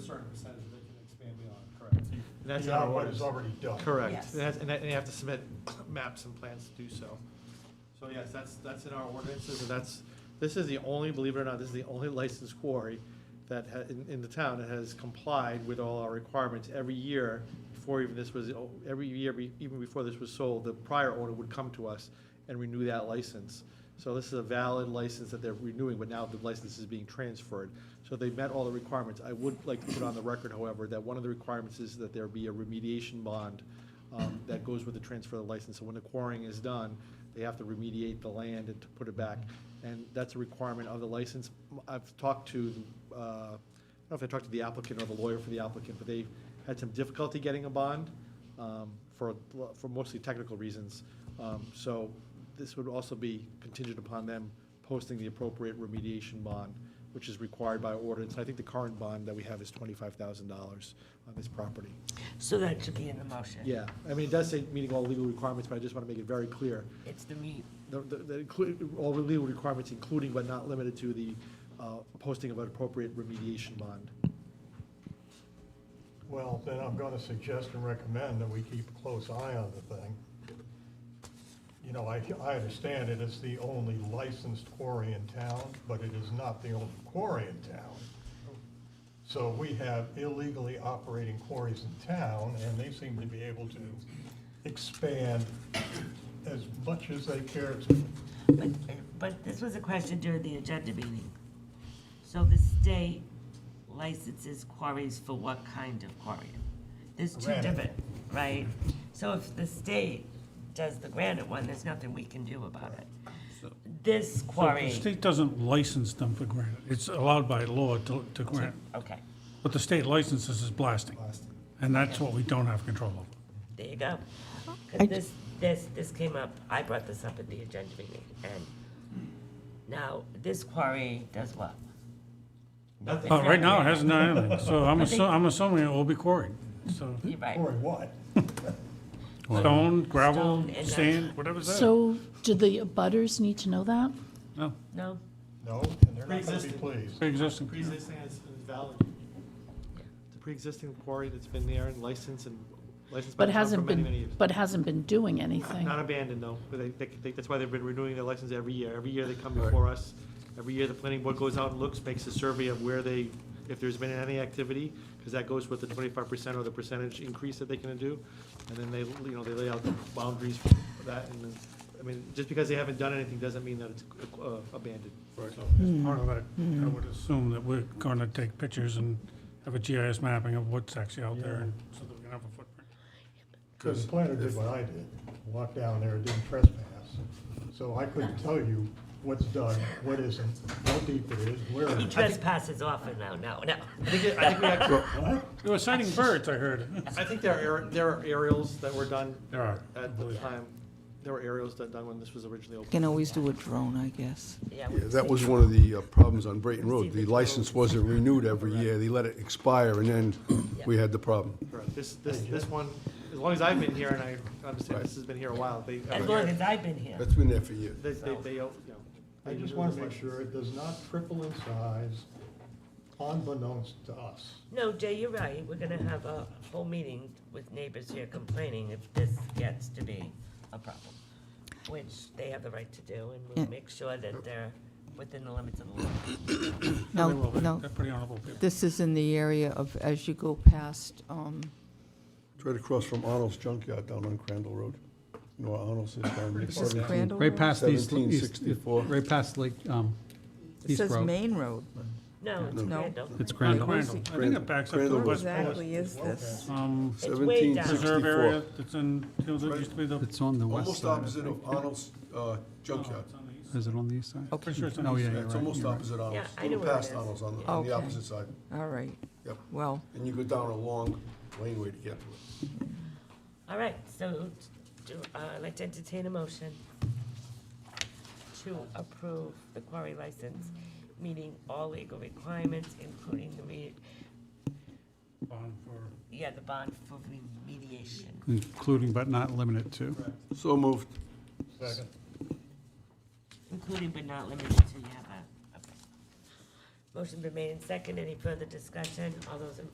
that's not our beyond what ordinance. is already done. Correct, Yes. and that's, and that- and you have to submit maps and plans to do so. So yes, that's, that's in our ordinances, and that's, this is the only, believe it or not, this is the only licensed quarry that ha, in, in the town that has complied with all our requirements every year before even this was, oh, every year, be- even before this was sold, the prior owner would come to us and renew that license. So this is a valid license that they're renewing, but now the license is being transferred. So they met all the requirements. I would like to put on the record, however, that one of the requirements is that there be a remediation bond um, that goes with the transfer of the license. So when the quarrying is done, they have to remediate the land and to put it back. And that's a requirement of the license. I've talked to, uh, I don't know if I talked to the applicant or the lawyer for the applicant, but they had some difficulty getting a bond um, for, for mostly technical reasons. Um, So this would also be contingent upon them posting the appropriate remediation bond, which is required by ordinance. I think the current bond that we have is twenty-five thousand dollars on this property. So that should be in the motion. Yeah, I mean, it does say meeting all legal requirements, but I just want to make it very clear. It's the meat. The, the- the, inclu- all the legal requirements, including but not limited to the uh, posting of an appropriate remediation bond. Well, then I'm gonna suggest and recommend that we keep a close eye on the thing. You know, I, I understand it is the only licensed quarry in town, but it is not the only quarry in town. So we have illegally operating quarries in town, and they seem to be able to expand as much as they care to. But, but this was a question during the agenda meeting. So the state licenses quarries for what kind of quarry? There's two Granite. different, right? So if the state does the granite one, there's nothing we can do about it. This The quarry, state doesn't license them for granite. It's allowed by law to, to grant. okay, But the state licenses is blasting. And that's what we don't have control over. there you go. 'Cause I- this, this, this came up, I brought this up at the agenda meeting, and now this quarry does what? Uh, right now, it hasn't done anything, so I'm assuming, I'm assuming it will be quarried. So You're right. Quarry what? stone, Stone gravel, and- sand, whatever's there. So do the butters need to know that? No, No? No, and they're not gonna be Pre-existing. pleased. pre-existing. Pre-existing is valid. The pre-existing quarry that's been there and licensed and licensed by But the town for hasn't many, many been, years. but hasn't been doing anything. Not abandoned, though, but they, they- they, that's why they've been renewing their license every year. Every year they come before us. Every year the planning board goes out and looks, makes a survey of where they, if there's been any activity, because that goes with the twenty-five percent or the percentage increase that they can do. And then they, you know, they lay out the boundaries for that, and then, I mean, just because they haven't done anything doesn't mean that it's uh, abandoned. As part of that, I would assume that we're gonna take pictures and have a GIS mapping of what's actually out there, and so that we can have a footprint. Because the planner did what I did, walked down there, didn't trespass. So I couldn't tell you what's done, what isn't, how deep it is, where it He is. trespasses often now, no, no. I think, it- I think we actually, They were sighting birds, I heard. I think there are, aer- there are aerials that were done There are. at the time. There were aerials that done when this was originally opened. Can always do a drone, I guess. Yeah, Yeah, we- That was one of the uh, problems on Brayton Road. The license wasn't renewed every year. They let it expire, and then we had the problem. Correct. This, this, this one, as long as I've been here, and I understand this has been here a while, they, As every long year, as I've been here. That's been there for years. they, they, they, you know. I they just renew this want to make license. sure it does not triple in size unbeknownst to us. No, Jay, you're right, we're gonna have a whole meeting with neighbors here complaining if this gets to be a problem, which they have the right to do, and we'll Yeah. make sure that they're within the limits of the law. Now, They will. now, They're pretty honorable people. this is in the area of, as you go past, um, It's right across from Arnold's Junkyard down on Crandall Road. You know where Arnold's is down there? is it 17 Crandall? Right Road? past East, East, 1764. right past Lake, um, It East says Road. Main Road. No, it's No. Randall. It's Crandall. Crandall. Where's Crandall. the- I think it backs up to the Crandall. West What Pole exactly is this? um, It's way down. reserve 1764. area that's in, you know, that used to be the, It's on the west Almost side. I opposite think. of Arnold's uh, Junkyard. Is it Oh, on the east side? Pretty sure it's on Oh, the east yeah, side. Yeah, you're It's right, almost you're right. opposite Arnold's, Yeah, I know little where it past is. Arnold's on the, on Okay. the opposite side. All right. Yep. Well, And you go down a long laneway to get to it. All right, so, do, uh, I'd like to entertain a motion to approve the quarry license, meeting all legal requirements, including the re, Bond for- yeah, the bond for remediation. Including but not limited to. So moved. Second. Including but not limited to, you have a, okay. Motion been made and second, any further discussion? All those in